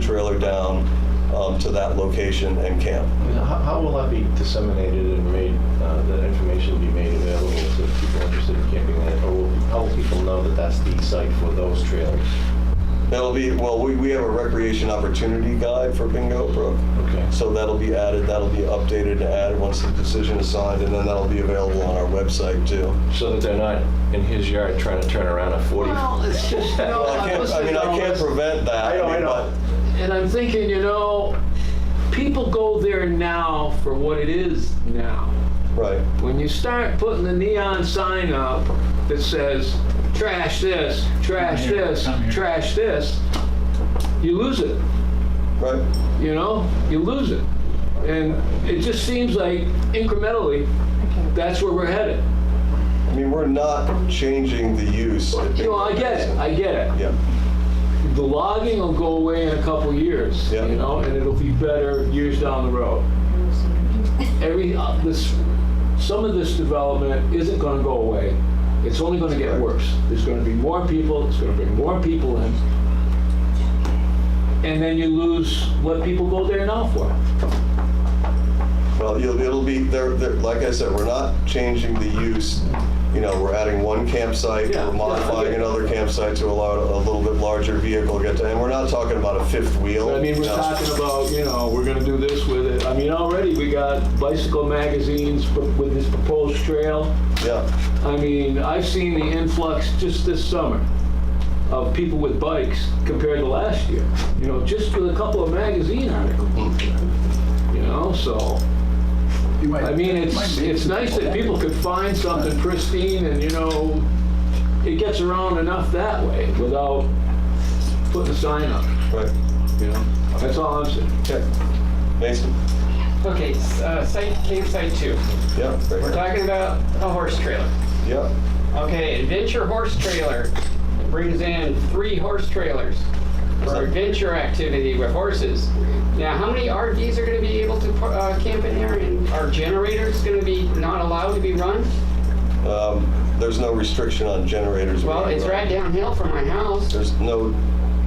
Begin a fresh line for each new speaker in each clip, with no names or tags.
trailer down um, to that location and camp.
How how will that be disseminated and made, uh, that information be made available to people interested in camping there? Or will- how will people know that that's the site for those trailers?
That'll be, well, we, we have a recreation opportunity guide for Bingo Brook.
Okay.
So that'll be added, that'll be updated and added once the decision is signed, and then that'll be available on our website too.
So that they're not in his yard trying to turn around a 40.
Well, it's just, you know,
Well, I
I'm
can't, I
listening
mean,
to
I
all
can't
this,
prevent that.
I know, I
mean,
know.
but-
and I'm thinking, you know, people go there now for what it is now.
Right,
When you start putting the neon sign up that says, trash this, trash
Come here,
this,
come here."
trash this, you lose it.
right.
you know, you lose it. And it just seems like incrementally, that's where we're headed.
I mean, we're not changing the use. at
You know, I
Bingo
get it, I get it.
Yeah,
The logging will go away in a couple years,
Yeah.
you know, and it'll be better years down the road. Every, uh, this, some of this development isn't gonna go away. It's only gonna get
Right.
worse. There's gonna be more people, it's gonna bring more people in. And then you lose what people go there now for.
well, you'll, it'll be, there, there, like I said, we're not changing the use. You know, we're adding one campsite,
Yeah, yeah, I
we're modifying
get it.
another campsite to allow a little bit larger vehicle to get to, and we're not talking about a fifth wheel.
I mean, we're
No.
talking about, you know, we're gonna do this with it. I mean, already we got bicycle magazines pro- with this proposed trail.
Yeah,
I mean, I've seen the influx just this summer of people with bikes compared to last year. You know, just with a couple of magazine articles, you know, so.
You might-
I mean, it's,
might make
it's
some
nice that people could find something pristine and, you know, it gets around enough that way without putting a sign up,
right.
you know? That's all I'm saying.
Okay. Mason?
Okay, s- uh, site, campsite two.
Yeah. right
We're
here.
talking about a horse trailer.
Yeah.
Okay, adventure horse trailer brings in three horse trailers for adventure activity with horses. Now, how many RVs are gonna be able to par- uh, camp in there and are generators gonna be not allowed to be run?
Um, There's no restriction on generators.
Well,
being
it's
run.
right downhill from my house.
There's no,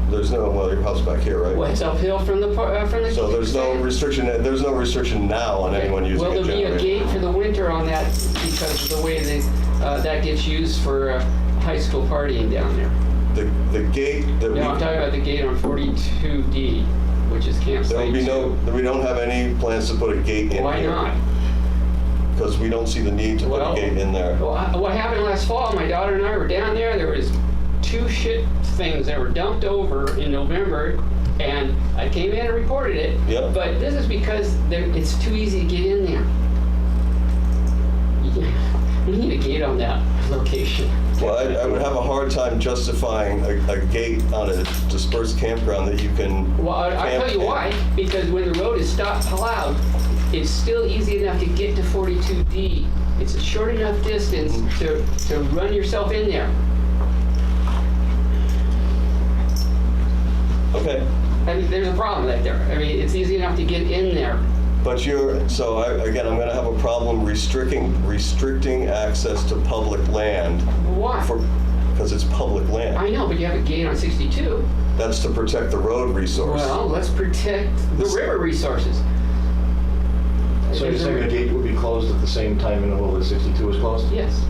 there's no, well, your house back here,
Well,
right?
it's uphill from the, par- uh, from the.
So there's no
campsite.
restriction, there's no restriction now on anyone using a
Will there be a
generator.
gate for the winter on that because of the way that, uh, that gets used for uh, high school partying down there?
The, the gate that
No, I'm talking
we,
about the gate on 42D, which is
there will
campsite
be
two.
no, we don't have any plans to put a gate in here.
Why not?
Because we don't see the need to put a
Well-
gate in there.
Well, I- what happened last fall, my daughter and I were down there, there was two shit things that were dumped over in November, and I came in and reported it.
Yep.
But this is because there, it's too easy to get in there. Yeah, We need a gate on that location.
Well, I, I would have a hard time justifying a, a gate on a dispersed campground that you can.
Well, I- I'll tell you
camp in.
why, because when the road is stopped plowed, it's still easy enough to get to 42D. It's a short enough distance to, to run yourself in there.
Okay.
I mean, there's a problem right there. I mean, it's easy enough to get in there.
But you're, so I, again, I'm gonna have a problem restricting, restricting access to public land
Why?
for, because it's public
I
land.
know, but you have a gate on 62.
That's to protect the road resource.
Well, let's protect the river resources.
So you're saying the gate will be closed at the same time interval that 62 is closed?
Yes.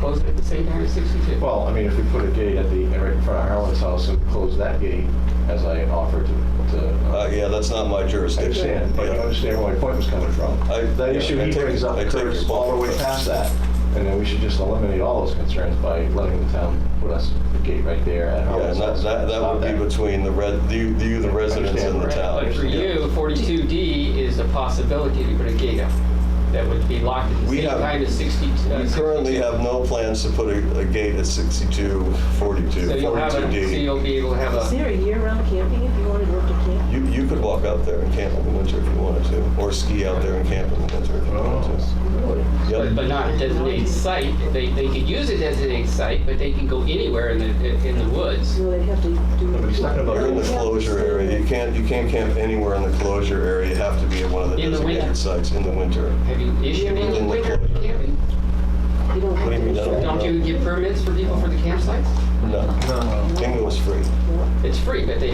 Close it at the same time as 62.
Well, I mean, if we put a gate at the, right in front of Harlan's house and close that gate, as I offered to, to uh,
Uh, yeah, that's not my
I
jurisdiction.
understand, but I
Yeah.
understand where my point was coming from.
I-
That
yeah,
issue
I
he
take-
brings up
I take your
occurs
point.
all the way past that, and then we should just eliminate all those concerns by letting the town put us a gate right there at
Yeah,
Harlan's
and that,
house.
that, that
Stop
would be between the red, you, you, the residents and the
Right,
town.
But for
Yeah.
you, 42D is a possibility to put a gate up that would be locked at the
We
same
have-
time as 60. uh,
We currently
62.
have no plans to put a, a gate at 62, 42,
So you'll have, a- so
42D.
you'll be able to have
Is
a,
there a year-round camping if you wanted to work at camp?
You, you could walk out there and camp in the winter if you wanted to, or ski out there and camp in the winter if you wanted to. Yep.
Oh, but not a designated site. They, they could use a designated site, but they can go anywhere in the, in the woods.
Well, they'd have to do.
but he's talking about-
You're in the closure area, you can't, you can't camp anywhere in the closure area, you have to be at one of the
In the winter.
designated sites in the winter.
Have you issued any
In the
winter
closure.
camping?
You don't
What do you mean,
have
I
to.
don't
Don't you get permits for people for the campsites?
No,
No.
bingo is free.
No.
It's free, but they